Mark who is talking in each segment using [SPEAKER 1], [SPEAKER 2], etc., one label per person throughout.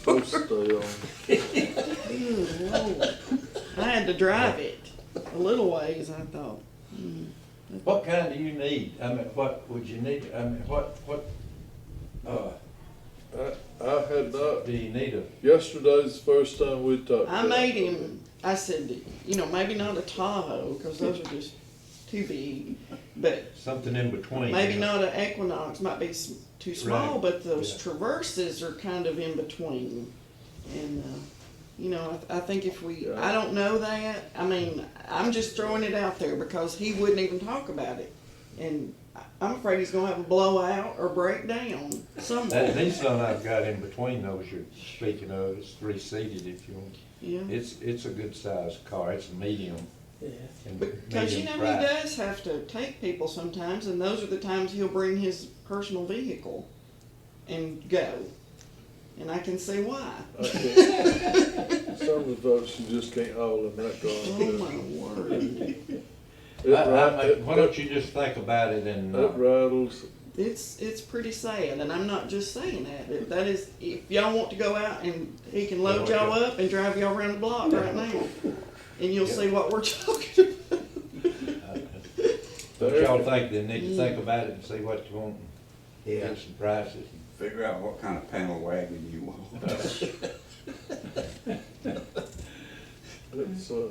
[SPEAKER 1] supposed to. um,
[SPEAKER 2] Ooh, Lord. I had to drive it a little ways, I thought.
[SPEAKER 3] What kind do you need? I mean, what would you need? I mean, what, what, uh,
[SPEAKER 1] I, I had not.
[SPEAKER 3] do you need a,
[SPEAKER 1] Yesterday's the first time we talked.
[SPEAKER 2] I
[SPEAKER 1] about
[SPEAKER 2] made
[SPEAKER 1] it.
[SPEAKER 2] him, I said, you know, maybe not a Tahoe, because those are just too big, but
[SPEAKER 3] something in between?
[SPEAKER 2] maybe
[SPEAKER 3] you know?
[SPEAKER 2] not an Equinox, might be s- too small,
[SPEAKER 3] Right.
[SPEAKER 2] but those
[SPEAKER 3] Yeah.
[SPEAKER 2] traverses are kind of in between. And, uh, you know, I, I think if we,
[SPEAKER 1] Yeah.
[SPEAKER 2] I don't know that, I mean, I'm just throwing it out there because he wouldn't even talk about it. And I- I'm afraid he's gonna have a blowout or breakdown
[SPEAKER 3] That,
[SPEAKER 2] somewhere,
[SPEAKER 3] these one I've got in between those you're speaking of, it's three seated if you want.
[SPEAKER 2] yeah.
[SPEAKER 3] It's, it's a good sized car, it's a medium. and
[SPEAKER 2] Because you know
[SPEAKER 3] medium
[SPEAKER 2] he
[SPEAKER 3] price.
[SPEAKER 2] does have to take people sometimes, and those are the times he'll bring his personal vehicle and go. And I can see why.
[SPEAKER 1] I can't- Some of the folks you just can't haul in that car.
[SPEAKER 2] Oh my word!
[SPEAKER 1] It
[SPEAKER 3] I- I-
[SPEAKER 1] ri- it-
[SPEAKER 3] why don't you just think about it and,
[SPEAKER 1] It
[SPEAKER 3] uh,
[SPEAKER 1] rattles.
[SPEAKER 2] It's it's pretty sad, and I'm not just saying that. It- That is, if y'all want to go out and he can load
[SPEAKER 3] Yeah,
[SPEAKER 2] y'all up and drive y'all around the block right now, and you'll
[SPEAKER 3] Yeah.
[SPEAKER 2] see what we're talking about.
[SPEAKER 3] don't uh, y'all think they
[SPEAKER 2] Mm.
[SPEAKER 3] need to think about it and see what you want? and
[SPEAKER 4] Yeah,
[SPEAKER 3] Get some prices.
[SPEAKER 4] figure out what kind of panel wagon you want.
[SPEAKER 1] It's a,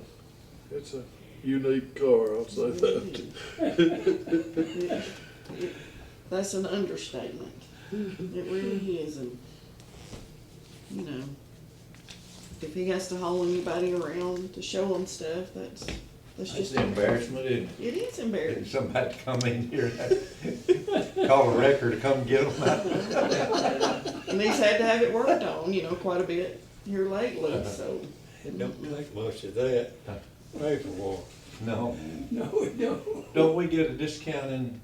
[SPEAKER 1] it's a unique car, I'll say that.
[SPEAKER 2] It- it- That's an understatement. It really is, and, you know, if he has to haul anybody around to show them stuff, that's, that's
[SPEAKER 3] It's
[SPEAKER 2] just,
[SPEAKER 3] embarrassment, isn't it?
[SPEAKER 2] it is
[SPEAKER 3] Getting
[SPEAKER 2] embarrassing.
[SPEAKER 3] somebody to come in here, call a wrecker to come get them.
[SPEAKER 2] And he's had to have it worked on, you know, quite a bit here lately, so.
[SPEAKER 5] It don't take much of that, pay for one.
[SPEAKER 3] No,
[SPEAKER 5] No, it don't.
[SPEAKER 3] don't we get a discount in,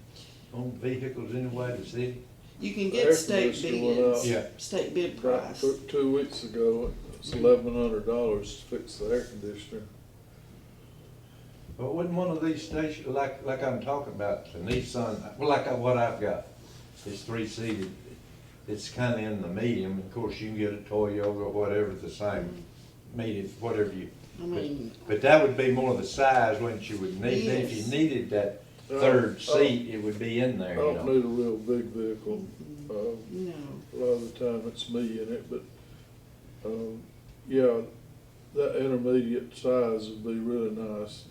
[SPEAKER 3] on vehicles anyway, the city?
[SPEAKER 2] You can
[SPEAKER 1] Air
[SPEAKER 2] get state
[SPEAKER 1] conditioner went up.
[SPEAKER 2] bids,
[SPEAKER 3] Yeah.
[SPEAKER 2] state bid
[SPEAKER 1] About
[SPEAKER 2] price.
[SPEAKER 1] two- Two weeks ago, it's eleven hundred dollars to fix the air conditioner.
[SPEAKER 3] But wouldn't one of these stations, like, like I'm talking about, the Nissan, well, like I- what I've got, it's three seated. It's kinda in the medium, of course, you can get a Toyota or whatever, the same, medium, whatever you.
[SPEAKER 2] I mean,
[SPEAKER 3] But that would be more the size, wouldn't you, would need, if
[SPEAKER 2] Yes.
[SPEAKER 3] you needed that third
[SPEAKER 1] oh,
[SPEAKER 3] seat, it would be in
[SPEAKER 1] I
[SPEAKER 3] there, you
[SPEAKER 1] don't
[SPEAKER 3] know?
[SPEAKER 1] need a real big vehicle. Um,
[SPEAKER 2] you
[SPEAKER 1] A
[SPEAKER 2] know,
[SPEAKER 1] lot of the time it's me in it, but, um, yeah, that intermediate size would be really nice.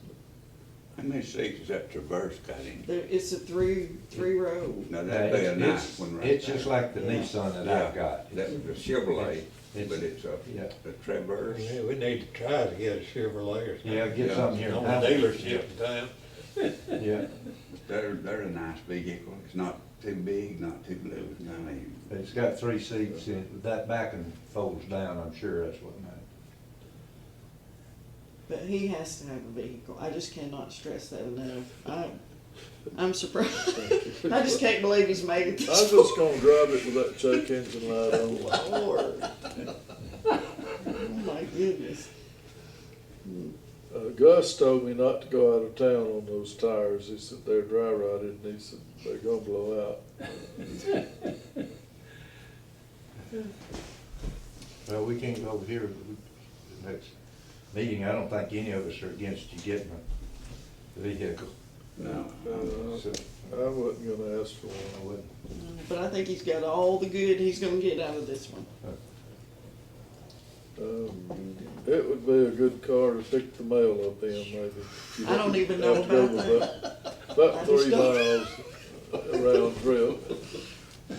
[SPEAKER 4] How many seats is that Traverse got in?
[SPEAKER 2] there, it's a three, three row.
[SPEAKER 4] Now,
[SPEAKER 3] Yeah,
[SPEAKER 4] that'd be a
[SPEAKER 3] it's-
[SPEAKER 4] nice
[SPEAKER 3] it's-
[SPEAKER 4] one right
[SPEAKER 3] It's just
[SPEAKER 4] there.
[SPEAKER 3] like the
[SPEAKER 2] Yeah.
[SPEAKER 3] Nissan that
[SPEAKER 4] Yeah,
[SPEAKER 3] I've got.
[SPEAKER 4] That's a Chevrolet,
[SPEAKER 3] It's-
[SPEAKER 4] but it's a,
[SPEAKER 3] yeah.
[SPEAKER 4] a Traverse.
[SPEAKER 5] Yeah, we need to try to get a Chevrolet or something.
[SPEAKER 3] Yeah, get
[SPEAKER 4] Yeah.
[SPEAKER 3] something here.
[SPEAKER 5] On the dealership in town.
[SPEAKER 3] Yeah,
[SPEAKER 4] They're, they're a nice vehicle. It's not too big, not too little, I mean,
[SPEAKER 3] it's got three seats, and that back and folds down, I'm sure that's what made it.
[SPEAKER 2] But he has to have a vehicle. I just cannot stress that enough. I, I'm surprised. I just can't believe he's made it
[SPEAKER 1] I'm
[SPEAKER 2] this far.
[SPEAKER 1] just gonna drive it with that check engine light on.
[SPEAKER 2] Lord. Oh my goodness.
[SPEAKER 1] Uh, Gus told me not to go out of town on those tires. He said they're dry rotted and he said they're gonna blow out.
[SPEAKER 3] Well, we can't go over here, We- the next meeting, I don't think any of us are against you getting a vehicle.
[SPEAKER 4] no.
[SPEAKER 3] So,
[SPEAKER 1] Uh, I wasn't gonna ask for
[SPEAKER 3] I
[SPEAKER 1] one.
[SPEAKER 3] wouldn't.
[SPEAKER 2] But I think he's got all the good he's gonna get out of this one.
[SPEAKER 1] Um, It would be a good car to pick the mail up in maybe.
[SPEAKER 2] I don't even know
[SPEAKER 1] Have to go
[SPEAKER 2] about
[SPEAKER 1] with About
[SPEAKER 2] I
[SPEAKER 1] three
[SPEAKER 2] just
[SPEAKER 1] miles round trip.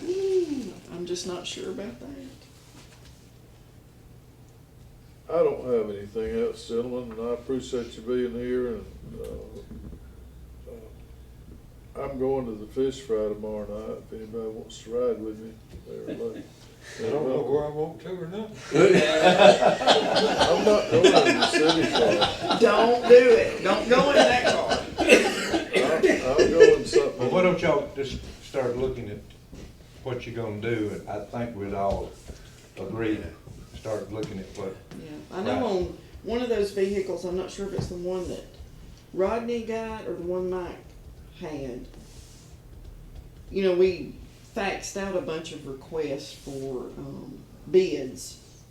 [SPEAKER 2] Ooh, I'm just not sure about that.
[SPEAKER 1] I don't have anything else, gentlemen, and I appreciate you being here, and, uh, uh, I'm going to the fish fry tomorrow night, if anybody wants to ride with me, they're late.
[SPEAKER 5] I don't know where I want to or not.
[SPEAKER 1] I'm not going to the city fry,
[SPEAKER 2] Don't do it. Don't go in that car.
[SPEAKER 1] I'm, I'm going
[SPEAKER 3] Well, why
[SPEAKER 1] something,
[SPEAKER 3] don't y'all just start looking at what you're gonna do, and I think we'd all agree, start looking at what,
[SPEAKER 2] Yeah, I know
[SPEAKER 3] Right.
[SPEAKER 2] on one of those vehicles, I'm not sure if it's the one that Rodney got or the one Mike had. You know, we faxed out a bunch of requests for um, bids